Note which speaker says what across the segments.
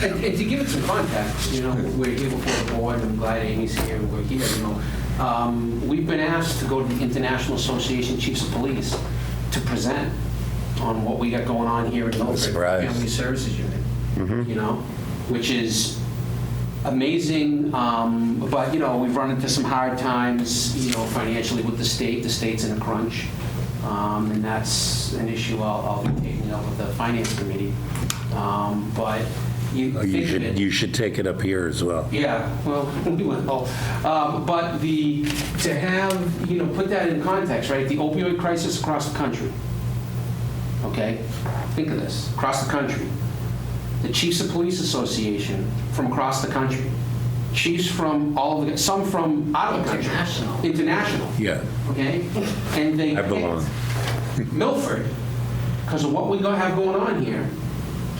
Speaker 1: And and to give it some context, you know, we're here before the board, I'm glad Amy's here, we're here, you know. Um, We've been asked to go to the International Association of Chiefs of Police to present on what we got going on here at Milford
Speaker 2: surprised.
Speaker 1: Family Services Unit, you know, which is amazing, um, but, you know, we've run into some hard times, you know, financially with the state, the state's in a crunch, um, and that's an issue I'll, I'll be taking up with the finance committee. Um, But you
Speaker 2: Oh,
Speaker 1: think
Speaker 2: You
Speaker 1: of it-
Speaker 2: should, you should take it up here as well.
Speaker 1: yeah, well, we went all. Um, But the, to have, you know, put that in context, right? The opioid crisis across the country, okay? Think of this, across the country. The Chiefs of Police Association from across the country. Chiefs from all of the, some from out of the country.
Speaker 3: International.
Speaker 1: International,
Speaker 2: Yeah,
Speaker 1: okay? And they.
Speaker 2: I belong.
Speaker 1: Milford, because of what we go- have going on here.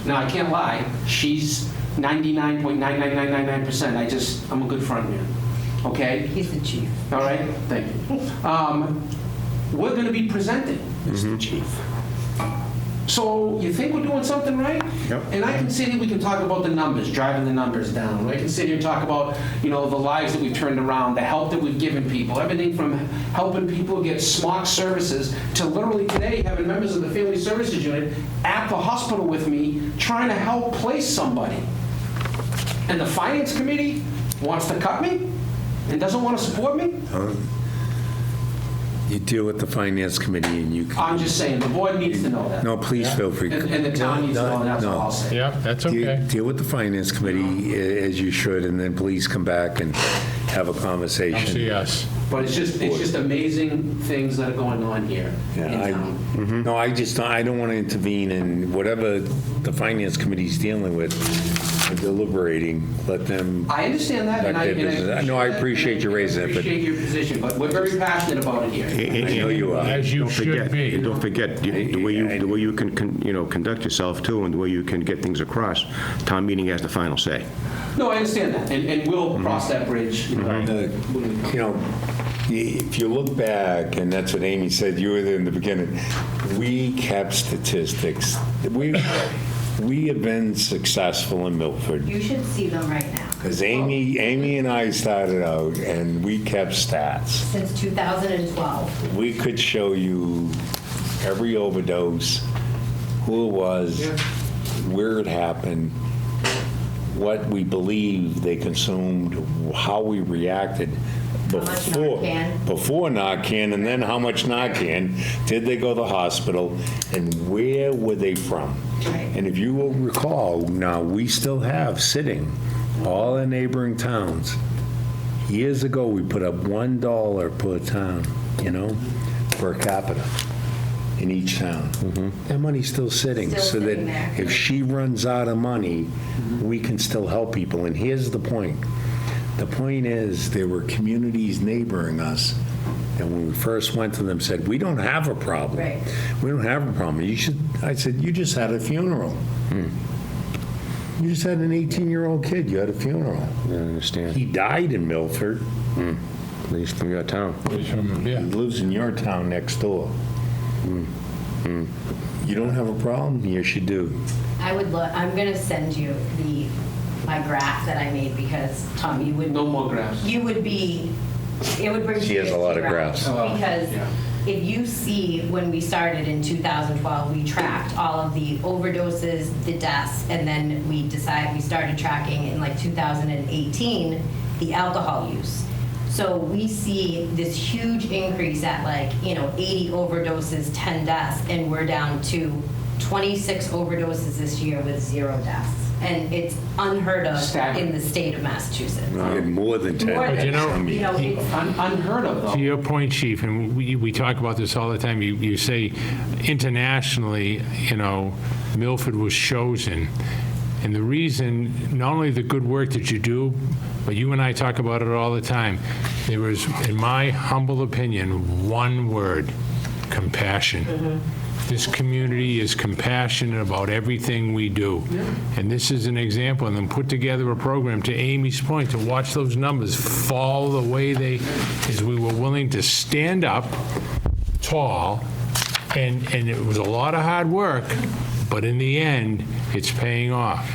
Speaker 1: Now, I can't lie, she's 99.99999%. I just, I'm a good friend here, okay?
Speaker 3: He's the chief.
Speaker 1: All right, thank you. Um, We're going to be presenting,
Speaker 2: Mm-hmm.
Speaker 1: Mr. Chief. So you think we're doing something right?
Speaker 2: Yep.
Speaker 1: And I can sit here, we can talk about the numbers, driving the numbers down. I can sit here and talk about, you know, the lives that we've turned around, the help that we've given people, everything from helping people get SMOC services to literally today having members of the Family Services Unit at the hospital with me, trying to help place somebody. And the Finance Committee wants to cut me and doesn't want to support me?
Speaker 2: You deal with the finance committee and you can,
Speaker 1: I'm just saying, the board needs to know that.
Speaker 2: no, please feel free.
Speaker 1: Um, And and the town needs to know, that's all I'll
Speaker 2: No.
Speaker 1: say.
Speaker 4: Yeah, that's
Speaker 2: Deal
Speaker 4: okay.
Speaker 2: deal with the finance committee a- as you should, and then please come back and have a
Speaker 4: Come see
Speaker 2: conversation.
Speaker 4: us.
Speaker 1: But it's just, it's just amazing things that are going on here in
Speaker 2: Yeah, I-
Speaker 1: town.
Speaker 2: Mhm. No, I just, I don't want to intervene in whatever the finance committee's dealing with, deliberating, let them,
Speaker 1: I understand that, and I.
Speaker 2: Back to
Speaker 1: and
Speaker 2: business. No, I appreciate you raising it, but-
Speaker 1: Appreciate your position, but we're very passionate about it here.
Speaker 2: I know you are.
Speaker 4: As you
Speaker 5: Don't
Speaker 4: should
Speaker 5: forget- and
Speaker 4: be.
Speaker 5: Don't forget, you- the way you, the way you can, con- you know, conduct yourself too, and the way you can get things across, town meeting has the final say.
Speaker 1: No, I understand that, and, and we'll cross that bridge. you know, when we come.
Speaker 2: you know, i- if you look back, and that's what Amy said, you were there in the beginning, we kept statistics. We, we have been successful in Milford,
Speaker 3: You should see them right now.
Speaker 2: because Amy, Amy and I started out, and we kept stats.
Speaker 3: Since 2012.
Speaker 2: We could show you every overdose, who it was, where it happened, what we believe they consumed, how we reacted
Speaker 3: How much
Speaker 2: before.
Speaker 3: Narcan.
Speaker 2: Before Narcan, and then how much Narcan, did they go to the hospital, and where were they from?
Speaker 3: Right.
Speaker 2: And if you will recall, now, we still have sitting, all the neighboring towns, Years ago, we put up one dollar per town, you know, per capita in each town. That money's still sitting,
Speaker 3: Mm-hmm. Still
Speaker 2: so
Speaker 3: sitting there.
Speaker 2: that if she runs out of money, we can still help people. And here's the point. The point is, there were communities neighboring us, and when we first went to them, said, "We don't have a problem.
Speaker 3: Right.
Speaker 2: We don't have a problem. You should." I said, "You just had a funeral. You just had an 18-year-old kid. You had a funeral.
Speaker 5: I understand.
Speaker 2: He died in Milford."
Speaker 5: He's from your town.
Speaker 4: Yeah.
Speaker 2: He lives in your town next door. You don't have a problem? Yes, you do.
Speaker 3: I would look, I'm going to send you the, my graph that I made because, Tom, you would,
Speaker 1: No more graphs.
Speaker 3: you would be, it would bring.
Speaker 2: She has a
Speaker 3: tears
Speaker 2: lot
Speaker 3: to
Speaker 2: of
Speaker 3: your
Speaker 2: graphs.
Speaker 3: eyes.
Speaker 1: Oh, wow.
Speaker 3: Because
Speaker 1: Yeah.
Speaker 3: if you see, when we started in 2012, we tracked all of the overdoses, the deaths, and then we decided, we started tracking in like 2018, the alcohol use. So we see this huge increase at like, you know, 80 overdoses, 10 deaths, and we're down to 26 overdoses this year with zero deaths. And it's unheard of
Speaker 1: Staggering.
Speaker 3: in the state of Massachusetts.
Speaker 2: I had more than
Speaker 3: More
Speaker 2: 10.
Speaker 3: than-
Speaker 4: you know-
Speaker 3: you know, it's-
Speaker 1: Un- Unheard of,
Speaker 4: To
Speaker 1: though.
Speaker 4: your point, Chief, and we, we talk about this all the time, you, you say internationally, you know, Milford was chosen. And the reason, not only the good work that you do, but you and I talk about it all the time. There was, in my humble opinion, one word, compassion. This community is compassionate about everything we do. And this is an example, and then put together a program, to Amy's point, to watch those numbers fall the way they, is we were willing to stand up tall, and, and it was a lot of hard work, but in the end, it's paying off.